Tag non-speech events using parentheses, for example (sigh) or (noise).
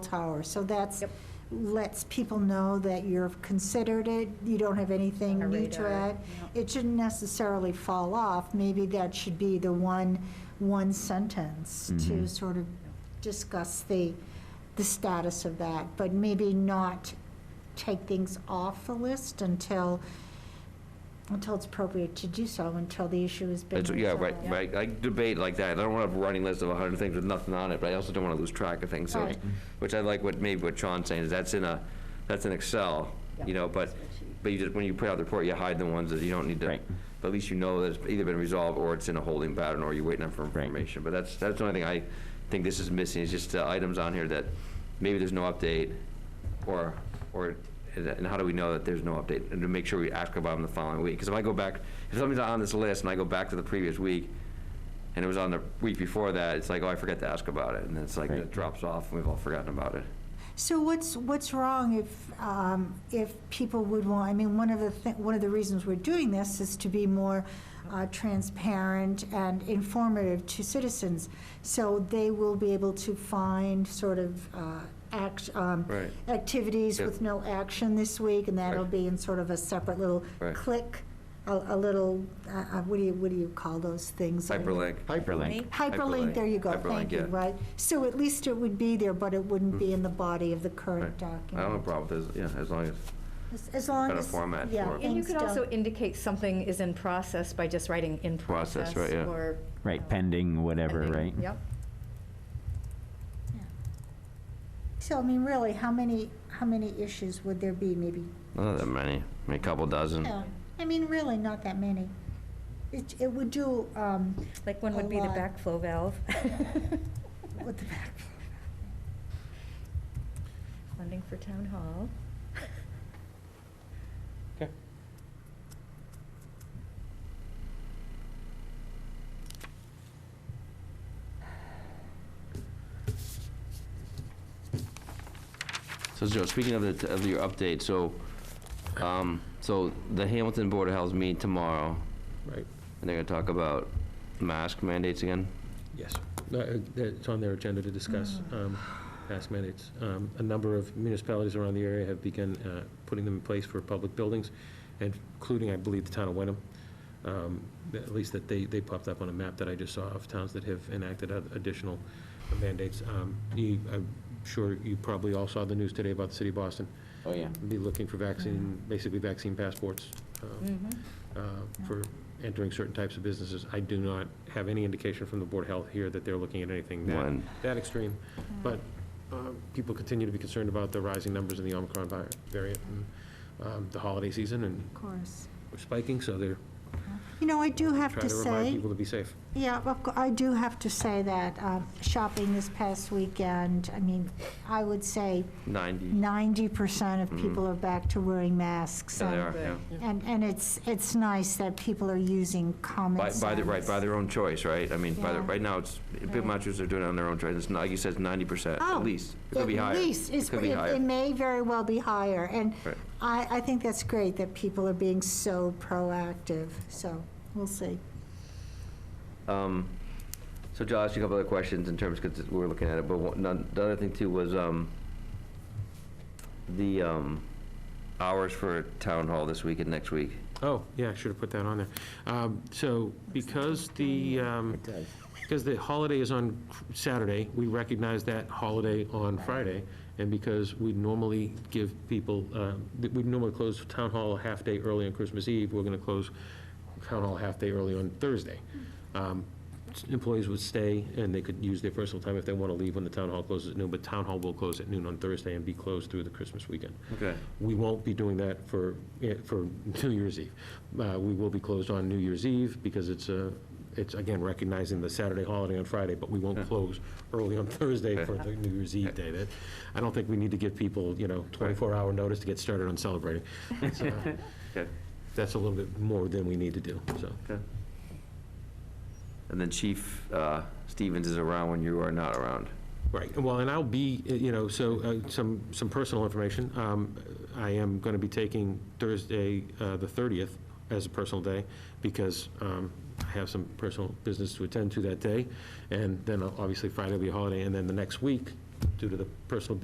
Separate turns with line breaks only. tower. So that's,
Yep.
lets people know that you've considered it, you don't have anything
On our
new to
radar,
add.
yeah.
It shouldn't necessarily fall off. Maybe that should be the one, one sentence to
Mhm.
sort of discuss the, the status of that, but maybe not take things off the list until, until it's appropriate to do so, until the issue has been
It's- Yeah, right,
resolved.
right. I debate like that. I don't want to have a running list of 100 things with nothing on it, but I also don't want to lose track of things. So,
Right.
Which I like what, maybe what Sean's saying, is that's in a, that's in Excel, you
Yep.
know, but, but you just, when you put out the report, you hide the ones that you don't need to.
Right.
But at least you know that it's either been resolved, or it's in a holding pattern, or you're waiting on for
Right.
information. But that's, that's the only thing I think this is missing, is just uh, items on here that maybe there's no update, or, or, and how do we know that there's no update? And to make sure we ask about them the following week. Because if I go back, if something's on this list and I go back to the previous week, and it was on the week before that, it's like, oh, I forgot to ask about it. And it's like,
Right.
it drops off, and we've all forgotten about it.
So what's, what's wrong if, um, if people would want, I mean, one of the, thi- one of the reasons we're doing this is to be more uh, transparent and informative to citizens, so they will be able to find sort of uh, act, um,
Right.
activities
Yeah.
with no action this week, and that'll
Right.
be in sort of a separate little
Right.
click, a a little, uh, uh, what do you, what do you call those things?
Hyperlink.
Hyperlink.
Hyperlink, there you go,
Hyperlink,
thank you,
yeah. Hmm.
right? So at least it would be there, but it wouldn't be in the body of the
Right.
current document.
I don't have a problem with this, yeah, as long as,
As- As long
Got a
as,
format for
yeah,
it.
And you
things
could also
don't-
indicate something is in process by just writing in
Process,
process.
right, yeah.
Or.
Right,
uh,
pending, whatever,
pending.
right?
Yep.
yeah. So, I mean, really, how many, how many issues would there be, maybe?
not that many, maybe a couple dozen.
No, I mean, really, not that many. It, it would do, um,
Like one
A
would be the
lot.
backflow valve.
(laughs) with the back,
(laughs) Funding for town hall. (laughs)
So Joe, speaking of the, of your update, so, um, so the Hamilton Board of Health meet tomorrow,
Right,
and they're gonna talk about mask mandates again?
yes. No, uh, It's on their agenda to discuss
Mm.
um, mask mandates. Um, A number of municipalities around the area have begun uh, putting them in place for public buildings, including, I believe, the town of Wenham. Um, th- At least that they, they popped up on a map that I just saw of towns that have enacted oth- additional mandates. Um, you- I'm sure you probably all saw the news today about the city of Boston.
Oh, yeah. Mm-hmm.
Be looking for vaccine, basically vaccine passports. um,
Mm-hmm.
uh, for entering certain types of businesses. I do not have any indication from the Board of Health here that they're looking at anything that,
One.
that extreme. But um, people continue to be concerned about the rising numbers in the Omicron vi- variant and um, the holiday season and
of course.
we're spiking, so they're
You know, I do have
trying
to
to
say.
remind people to be safe.
Yeah, of cou- I do have to say that um, shopping this past weekend, I mean, I would say
Ninety?
90% of people are back to wearing masks.
Mm-hmm. Yeah, they
and-
are, yeah.
And, and it's, it's nice that people are using common
By,
sense.
by the, right, by their own choice, right? I mean, by the,
Yeah.
right now, it's, big
Right.
matches are doing it on their own choice, it's, not- like you said, it's ninety percent,
Oh,
at least. It could be higher.
At least,
It
it's,
could be
it
higher.
it may very well be higher. And
Right.
I, I think that's great that people are being so proactive, so we'll see.
Um, So Joe, I'll ask you a couple other questions in terms, because we were looking at it, but one, none- the other thing too was um, the um, hours for town hall this week and next week.
Oh, yeah, I should have put that on there. Um, So because the, um, because the holiday is on Saturday, we recognize that holiday on Friday, and because we normally give people, um, th- we normally close town hall a half day early on Christmas Eve, we're going to close town hall a half day early on Thursday. Um, s- Employees would stay, and they could use their personal time if they want to leave when the town hall closes at noon, but town hall will close at noon on Thursday and be closed through the Christmas weekend.
Okay.
We won't be doing that for, eh, for (laughs) New Year's Eve. Uh, We will be closed on New Year's Eve because it's a, it's again recognizing the Saturday holiday on Friday, but we won't close early on (laughs) Thursday for the New Year's Eve day. That, I don't think we need to give people, you know, 24-hour notice to get started on celebrating. It's, uh,
Okay.
That's a little bit more than we need to do, so.
Okay. And then Chief uh, Stevens is around when you are not around.
Right, well, and I'll be, uh, you know, so, uh, some, some personal information. Um, I am going to be taking Thursday, uh, the 30th, as a personal day, because um, I have some personal business to attend to that day, and then uh, obviously Friday will be a holiday, and then the next week, due to the personal